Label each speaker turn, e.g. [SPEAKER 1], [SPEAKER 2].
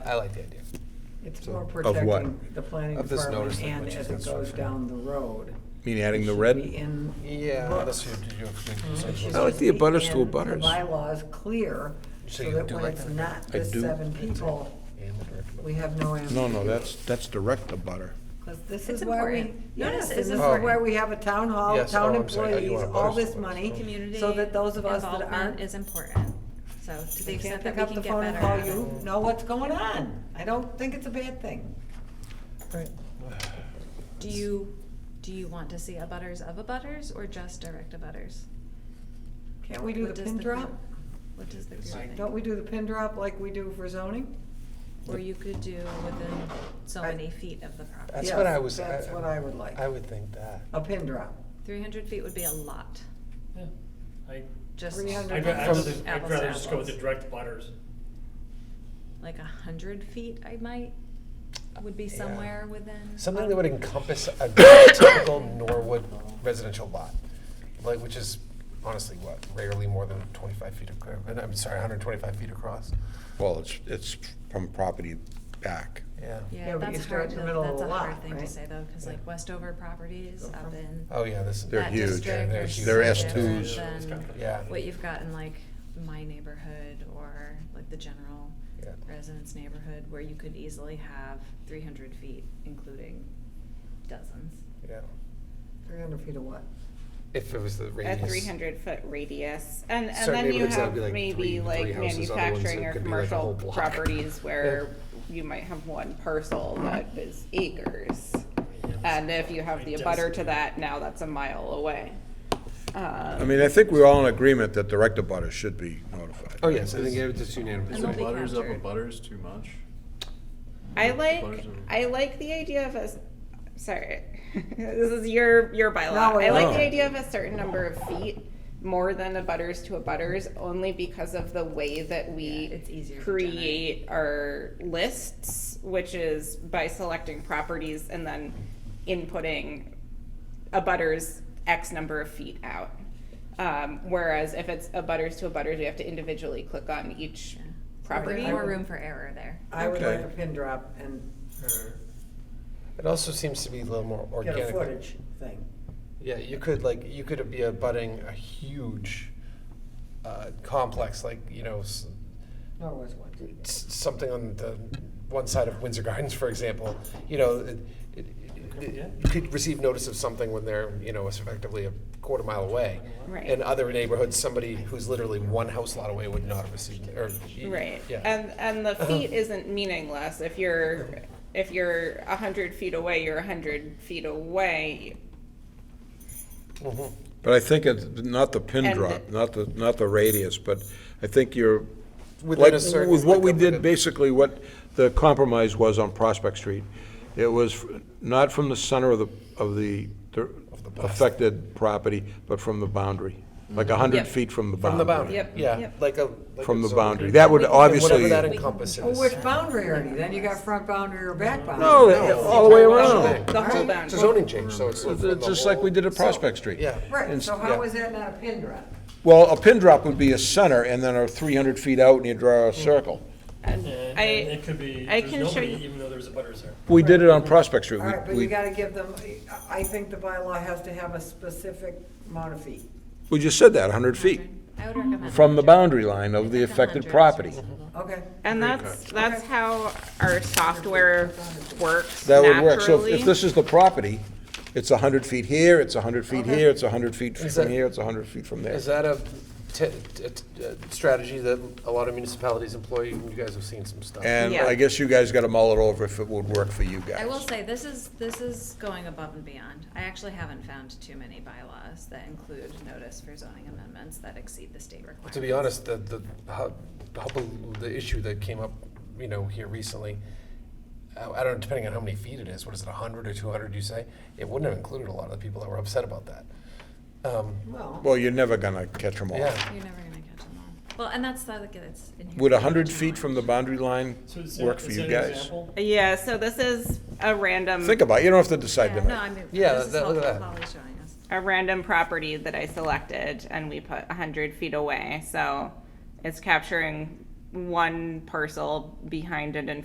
[SPEAKER 1] I like the idea.
[SPEAKER 2] It's
[SPEAKER 1] So-
[SPEAKER 2] more
[SPEAKER 1] Of
[SPEAKER 3] what?
[SPEAKER 2] protecting the planning
[SPEAKER 1] Of this notice
[SPEAKER 2] department
[SPEAKER 1] that
[SPEAKER 2] and
[SPEAKER 1] which
[SPEAKER 2] as
[SPEAKER 1] is
[SPEAKER 2] it goes
[SPEAKER 1] construction.
[SPEAKER 2] down the road.
[SPEAKER 3] Mean adding
[SPEAKER 2] It
[SPEAKER 3] the
[SPEAKER 2] should
[SPEAKER 3] red?
[SPEAKER 2] be in
[SPEAKER 1] Yeah,
[SPEAKER 2] book.
[SPEAKER 1] that's your, your big
[SPEAKER 2] It should
[SPEAKER 1] consensus.
[SPEAKER 2] just
[SPEAKER 3] I like the
[SPEAKER 2] be
[SPEAKER 3] abutters to
[SPEAKER 2] in The
[SPEAKER 3] abutters.
[SPEAKER 2] bylaw's clear,
[SPEAKER 1] So
[SPEAKER 2] so
[SPEAKER 1] you
[SPEAKER 2] that
[SPEAKER 1] do
[SPEAKER 2] when
[SPEAKER 1] like
[SPEAKER 2] it's
[SPEAKER 1] that?
[SPEAKER 2] not
[SPEAKER 3] I
[SPEAKER 2] the
[SPEAKER 3] do.
[SPEAKER 2] seven people, we have no ambiguity.
[SPEAKER 3] No, no, that's, that's direct to butter.
[SPEAKER 2] 'Cause this
[SPEAKER 4] It's
[SPEAKER 2] is why we,
[SPEAKER 4] important.
[SPEAKER 2] yes,
[SPEAKER 4] Notice
[SPEAKER 2] and
[SPEAKER 4] is
[SPEAKER 2] this is
[SPEAKER 1] important.
[SPEAKER 2] why we have a town hall,
[SPEAKER 1] Yes,
[SPEAKER 2] town
[SPEAKER 1] oh, I'm sorry, I do
[SPEAKER 2] employees,
[SPEAKER 1] want
[SPEAKER 2] all
[SPEAKER 1] abutters
[SPEAKER 2] this
[SPEAKER 1] to work,
[SPEAKER 2] money,
[SPEAKER 1] so-
[SPEAKER 4] Community
[SPEAKER 2] so that those of us that
[SPEAKER 4] involvement
[SPEAKER 2] aren't.
[SPEAKER 4] is important. So to the
[SPEAKER 2] We can't
[SPEAKER 4] extent
[SPEAKER 2] pick
[SPEAKER 4] that we
[SPEAKER 2] up the
[SPEAKER 4] can
[SPEAKER 2] phone
[SPEAKER 4] get
[SPEAKER 2] and call
[SPEAKER 4] better.
[SPEAKER 2] you, know what's going on. I don't think it's a bad thing.
[SPEAKER 4] Do you, do you want to see a butters of a butters or just direct a butters?
[SPEAKER 2] Can't we do the pin drop?
[SPEAKER 4] What does the group think?
[SPEAKER 2] Don't we do the pin drop like we do for zoning?
[SPEAKER 4] Or you could do within so
[SPEAKER 2] I-
[SPEAKER 4] many feet of the property.
[SPEAKER 1] That's
[SPEAKER 2] Yes,
[SPEAKER 1] what I was.
[SPEAKER 2] that's what I would like.
[SPEAKER 1] I would think that.
[SPEAKER 2] A pin drop.
[SPEAKER 4] Three hundred feet would be a lot,
[SPEAKER 5] Yeah, I,
[SPEAKER 4] just.
[SPEAKER 2] 300
[SPEAKER 5] I'd ra- I'd
[SPEAKER 4] from
[SPEAKER 5] rather, I'd
[SPEAKER 4] apples to
[SPEAKER 5] rather just go with the
[SPEAKER 4] apples.
[SPEAKER 5] direct butters.
[SPEAKER 4] Like a hundred feet, I might, would be
[SPEAKER 1] Yeah.
[SPEAKER 4] somewhere within.
[SPEAKER 1] Something
[SPEAKER 4] um,
[SPEAKER 1] that would encompass a typical Norwood residential lot, like, which is honestly what, rarely more than twenty-five feet across, I'm sorry, hundred and twenty-five feet across.
[SPEAKER 3] Well, it's, it's from property back.
[SPEAKER 1] Yeah.
[SPEAKER 2] Yeah,
[SPEAKER 4] Yeah,
[SPEAKER 2] but you
[SPEAKER 4] that's
[SPEAKER 2] start
[SPEAKER 4] hard,
[SPEAKER 2] in
[SPEAKER 4] to-
[SPEAKER 2] the middle of
[SPEAKER 4] that's
[SPEAKER 2] the
[SPEAKER 4] a hard
[SPEAKER 2] lot,
[SPEAKER 4] thing to
[SPEAKER 2] right?
[SPEAKER 4] say though, cause like Westover properties
[SPEAKER 2] Go
[SPEAKER 4] up
[SPEAKER 2] from-
[SPEAKER 4] in
[SPEAKER 1] Oh, yeah, this is.
[SPEAKER 3] They're
[SPEAKER 4] that
[SPEAKER 3] huge.
[SPEAKER 4] district
[SPEAKER 1] They're
[SPEAKER 4] are
[SPEAKER 1] huge.
[SPEAKER 4] so
[SPEAKER 3] They're
[SPEAKER 4] different
[SPEAKER 3] S2s.
[SPEAKER 4] than
[SPEAKER 1] Yeah.
[SPEAKER 4] What you've got in like my neighborhood or like the general
[SPEAKER 1] Yeah.
[SPEAKER 4] residence neighborhood where you could easily have three hundred feet, including dozens.
[SPEAKER 1] Yeah.
[SPEAKER 2] Three hundred feet of what?
[SPEAKER 1] If it was the
[SPEAKER 6] a
[SPEAKER 1] radius.
[SPEAKER 6] three hundred foot radius, and, and
[SPEAKER 1] Certain
[SPEAKER 6] then you
[SPEAKER 1] neighborhoods, that would
[SPEAKER 6] have
[SPEAKER 1] be like three-
[SPEAKER 6] maybe
[SPEAKER 1] three
[SPEAKER 6] like
[SPEAKER 1] houses, other ones,
[SPEAKER 6] manufacturing
[SPEAKER 1] it
[SPEAKER 6] or
[SPEAKER 1] could be like a whole
[SPEAKER 6] commercial
[SPEAKER 1] block.
[SPEAKER 6] properties where you might have one parcel that is acres. And if you have the abutter to that, now that's a mile away.
[SPEAKER 3] I
[SPEAKER 6] Um,
[SPEAKER 3] mean, I think we're all in agreement that direct to butter should be notified.
[SPEAKER 1] Oh, yes, I think it was just unanimous.
[SPEAKER 4] And they'll be
[SPEAKER 7] Butters up a
[SPEAKER 4] captured.
[SPEAKER 7] butters too much.
[SPEAKER 6] I like,
[SPEAKER 7] Butters are-
[SPEAKER 6] I like the idea of a, s- sorry, this is your, your
[SPEAKER 2] No,
[SPEAKER 6] bylaw.
[SPEAKER 2] we're
[SPEAKER 6] I like
[SPEAKER 3] not.
[SPEAKER 6] the idea of a certain number of feet more than a butters to a butters, only because of the way that we
[SPEAKER 4] Yeah, it's easier to
[SPEAKER 6] create our lists, which is by selecting properties and then inputting a butters X number of feet out. Um, whereas if it's a butters to a butters, we have to individually click on each
[SPEAKER 4] Yeah.
[SPEAKER 6] property.
[SPEAKER 4] More room for error there.
[SPEAKER 2] I would like
[SPEAKER 3] Okay.
[SPEAKER 2] a pin drop and or
[SPEAKER 1] It also seems to be a little more
[SPEAKER 2] get a
[SPEAKER 1] organic.
[SPEAKER 2] footage thing.
[SPEAKER 1] Yeah, you could like, you could be abutting a huge uh, complex, like, you know, s-
[SPEAKER 2] Nor was one.
[SPEAKER 1] s- something on the one side of Windsor Gardens, for example, you know, it, it, it,
[SPEAKER 5] Yeah.
[SPEAKER 1] you could receive notice of something when they're, you know, effectively a quarter mile away.
[SPEAKER 6] Right.
[SPEAKER 1] In other neighborhoods, somebody who's literally one house lot away would not have received, or.
[SPEAKER 6] Right,
[SPEAKER 1] Yeah.
[SPEAKER 6] and, and
[SPEAKER 3] Uh-huh.
[SPEAKER 6] the feet isn't meaningless, if you're, if you're a hundred feet away, you're a hundred feet away.
[SPEAKER 1] Mhm.
[SPEAKER 3] But I think it's not the pin
[SPEAKER 6] And
[SPEAKER 3] drop,
[SPEAKER 6] the-
[SPEAKER 3] not the, not the radius, but I think you're,
[SPEAKER 1] Within
[SPEAKER 3] like,
[SPEAKER 1] a certain-
[SPEAKER 3] with what we
[SPEAKER 1] like a-
[SPEAKER 3] did, basically what the compromise was on Prospect Street. It was f- not from the center of the, of the the affected property, but from the boundary, like a hundred
[SPEAKER 6] Yep.
[SPEAKER 3] feet from the boundary.
[SPEAKER 1] From the boundary,
[SPEAKER 6] Yep.
[SPEAKER 1] yeah,
[SPEAKER 6] Yep.
[SPEAKER 1] like a. like
[SPEAKER 3] From
[SPEAKER 1] a
[SPEAKER 3] the
[SPEAKER 1] zone.
[SPEAKER 3] boundary. That would obviously.
[SPEAKER 1] Whatever that encompasses.
[SPEAKER 6] Oh,
[SPEAKER 2] Well, which boundary are you? Then you got front boundary or back boundary?
[SPEAKER 3] No, it- all the way around.
[SPEAKER 6] The whole
[SPEAKER 1] It's a
[SPEAKER 6] boundary.
[SPEAKER 1] zoning change, so it's.
[SPEAKER 3] It's- it's just like we did at Prospect Street.
[SPEAKER 1] Yeah.
[SPEAKER 2] Right,
[SPEAKER 3] and-
[SPEAKER 2] so
[SPEAKER 1] yeah.
[SPEAKER 2] how is that not a pin drop?
[SPEAKER 3] Well, a pin drop would be a center and then a three hundred feet out and you draw a circle.
[SPEAKER 6] And
[SPEAKER 5] And
[SPEAKER 6] I-
[SPEAKER 5] and it could be,
[SPEAKER 6] I
[SPEAKER 5] there's
[SPEAKER 6] can show
[SPEAKER 5] nobody,
[SPEAKER 6] you-
[SPEAKER 5] even though there's a butters there.
[SPEAKER 3] We did it on Prospect Street.
[SPEAKER 2] All
[SPEAKER 3] We-
[SPEAKER 2] right, but
[SPEAKER 3] we-
[SPEAKER 2] you gotta give them, I think the bylaw has to have a specific amount of feet.
[SPEAKER 3] We just said that, hundred feet.
[SPEAKER 4] I would recommend.
[SPEAKER 3] from the
[SPEAKER 4] 100.
[SPEAKER 3] boundary line of the
[SPEAKER 4] Like a
[SPEAKER 3] affected
[SPEAKER 4] hundred is
[SPEAKER 3] property.
[SPEAKER 4] reasonable.
[SPEAKER 1] Mm-hmm.
[SPEAKER 2] Okay,
[SPEAKER 6] And that's, that's how our software works
[SPEAKER 3] That would work. So if-
[SPEAKER 6] naturally.
[SPEAKER 3] if this is the property, it's 100 feet here, it's 100 feet here, it's 100 feet
[SPEAKER 1] Is
[SPEAKER 3] from
[SPEAKER 1] that-
[SPEAKER 3] here, it's 100 feet from there.
[SPEAKER 1] Is that a t- t- t- uh, strategy that a lot of municipalities employ? You guys have seen some stuff.
[SPEAKER 3] And
[SPEAKER 6] Yeah.
[SPEAKER 3] I guess you guys got to mull it over if it would work for you guys.
[SPEAKER 4] I will say, this is, this is going above and beyond. I actually haven't found too many bylaws that include notice for zoning amendments that exceed the state requirements.
[SPEAKER 1] To be honest, the, the, hub- hubble- the issue that came up, you know, here recently, I I don't, depending on how many feet it is, what is it, hundred or two hundred, you say? It wouldn't have included a lot of the people that were upset about that. Um,
[SPEAKER 2] well,
[SPEAKER 3] Well, you're never going to catch them all.
[SPEAKER 1] Yeah,
[SPEAKER 4] You're never gonna catch them all. Well, and that's the, like, it's in here.
[SPEAKER 3] Would 100 feet from the boundary line
[SPEAKER 5] So is that-
[SPEAKER 3] work for
[SPEAKER 5] is
[SPEAKER 3] you
[SPEAKER 5] that an
[SPEAKER 3] guys?
[SPEAKER 5] example?
[SPEAKER 6] Yeah, so this is a random,
[SPEAKER 3] Think about it, you don't have to decide
[SPEAKER 4] Yeah, no,
[SPEAKER 3] tonight.
[SPEAKER 4] I mean,
[SPEAKER 1] Yeah,
[SPEAKER 4] this is
[SPEAKER 1] that- look at
[SPEAKER 4] helpful,
[SPEAKER 1] that.
[SPEAKER 4] Polly's showing us.
[SPEAKER 6] a random property that I selected and we put a hundred feet away, so it's capturing one parcel behind it and